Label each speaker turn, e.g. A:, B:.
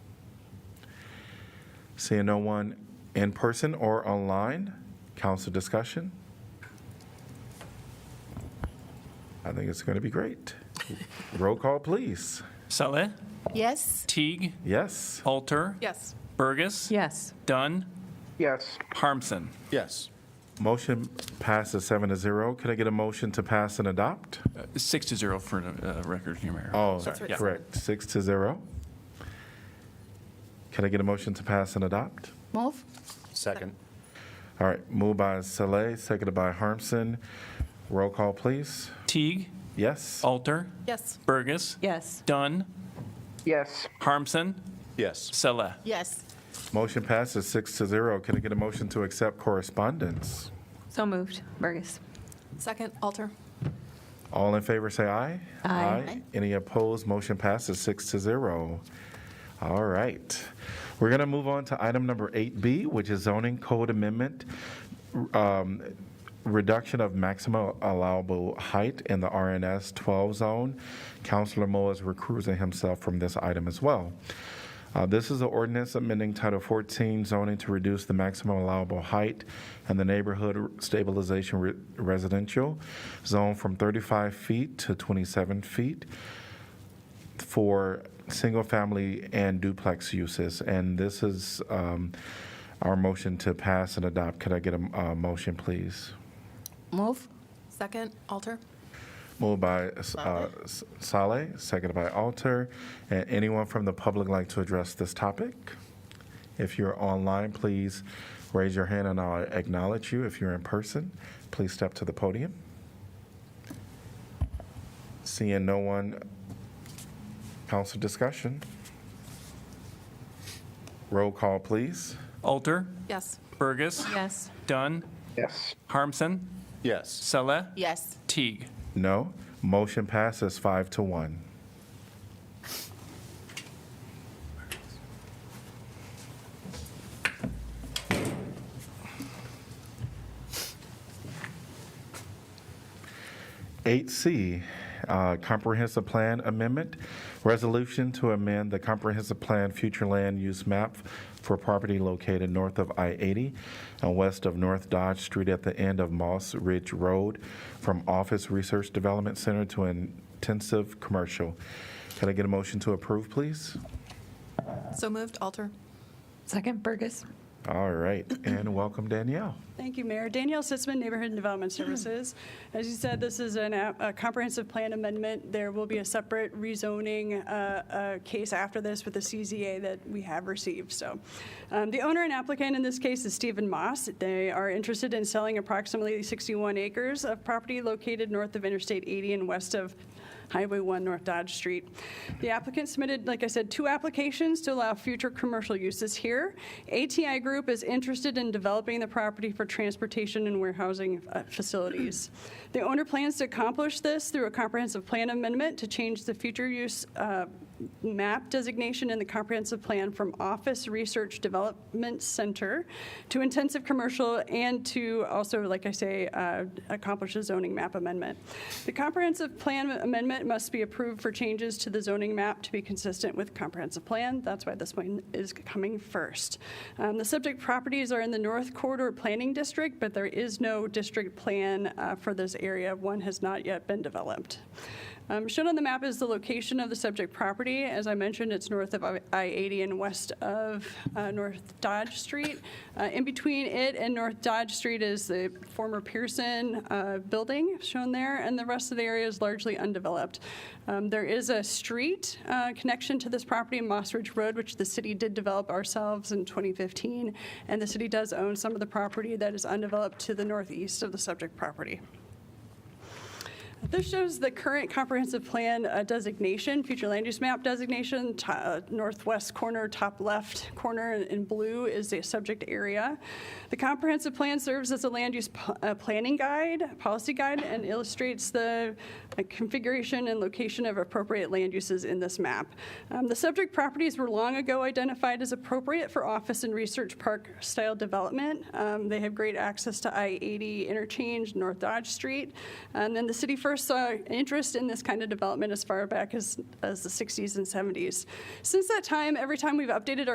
A: Seeing no one in person or online, council discussion? I think it's going to be great. Roll call, please.
B: Saleh,
C: Yes.
B: Teague,
A: Yes,
B: Alter,
C: Yes.
B: Burgess,
C: Yes.
B: Dunn,
D: Yes.
B: Harmson.
E: Yes.
A: motion passes seven to zero. Can I get a motion to pass and adopt?
B: Uh, Six to zero for the uh, record, Your Mayor.
A: Oh,
B: Sorry, yeah.
A: correct, six to zero. Can I get a motion to pass and adopt?
C: Move.
E: Second.
A: All right, moved by Saleh, seconded by Harmson. Roll call, please.
B: Teague,
A: Yes,
B: Alter,
C: Yes.
B: Burgess,
C: Yes.
B: Dunn,
D: Yes.
B: Harmson,
E: Yes.
B: Saleh.
C: Yes.
A: motion passes six to zero. Can I get a motion to accept correspondence?
F: So moved. Burgess.
C: Second, Alter.
A: All in favor, say aye.
F: Aye.
A: Any opposed, motion passes six to zero. All right. We're going to move on to item number 8B, which is zoning code amendment, um, reduction of maximum allowable height in the RNS 12 zone. Councilor Moe is recusing himself from this item as well. Uh, This is an ordinance amending Title 14 zoning to reduce the maximum allowable height in the neighborhood stabilization re- residential zone from 35 feet to 27 feet for single-family and duplex uses. And this is um, our motion to pass and adopt. Could I get a uh, motion, please?
C: Move. Second, Alter.
A: Moved by uh, S- Saleh, seconded by Alter. And anyone from the public like to address this topic? If you're online, please raise your hand and I'll acknowledge you. If you're in person, please step to the podium. Seeing no one, council discussion. Roll call, please.
B: Alter,
C: Yes.
B: Burgess,
F: Yes.
B: Dunn,
D: Yes.
B: Harmson,
E: Yes.
B: Saleh,
C: Yes.
B: Teague.
A: No. Motion passes five to one. Eight C, uh, Comprehensive Plan Amendment, Resolution to amend the Comprehensive Plan Future Land Use Map for property located north of I-80 and west of North Dodge Street at the end of Moss Ridge Road from Office Research Development Center to Intensive Commercial. Can I get a motion to approve, please?
C: So moved, Alter.
F: Second. Burgess.
A: All right, and welcome Danielle.
G: Thank you, Mayor. Danielle Sitzman, Neighborhood and Development Services. As you said, this is an, uh, a a comprehensive plan amendment. There will be a separate rezoning uh, uh, case after this with the CZA that we have received, so. um, The owner and applicant in this case is Stephen Moss. They are interested in selling approximately 61 acres of property located north of Interstate 80 and west of Highway 1 North Dodge Street. The applicant submitted, like I said, two applications to allow future commercial uses here. ATI Group is interested in developing the property for transportation and warehousing uh, facilities. The owner plans to accomplish this through a comprehensive plan amendment to change the future use uh, map designation in the comprehensive plan from Office Research Development Center to intensive commercial and to also, like I say, uh, accomplish a zoning map amendment. The comprehensive plan amendment must be approved for changes to the zoning map to be consistent with comprehensive plan. That's why this one is coming first. Um, The subject properties are in the North Corridor Planning District, but there is no district plan uh, for this area. One has not yet been developed. Um, Shown on the map is the location of the subject property. As I mentioned, it's north of I-80 and west of uh, North Dodge Street. Uh, In between it and North Dodge Street is the former Pearson uh, building shown there, and the rest of the area is largely undeveloped. Um, There is a street uh, connection to this property, Moss Ridge Road, which the city did develop ourselves in 2015, and the city does own some of the property that is undeveloped to the northeast of the subject property. This shows the current comprehensive plan uh, designation, future land use map designation, to- uh, northwest corner, top left corner in blue is the subject area. The comprehensive plan serves as a land use p- uh, planning guide, policy guide, and illustrates the uh, configuration and location of appropriate land uses in this map. Um, The subject properties were long ago identified as appropriate for office and research park-style development. Um, They have great access to I-80 interchange, North Dodge Street. And then the city first saw interest in this kind of development as far back as, as the 60s and 70s. Since that time, every time we've updated our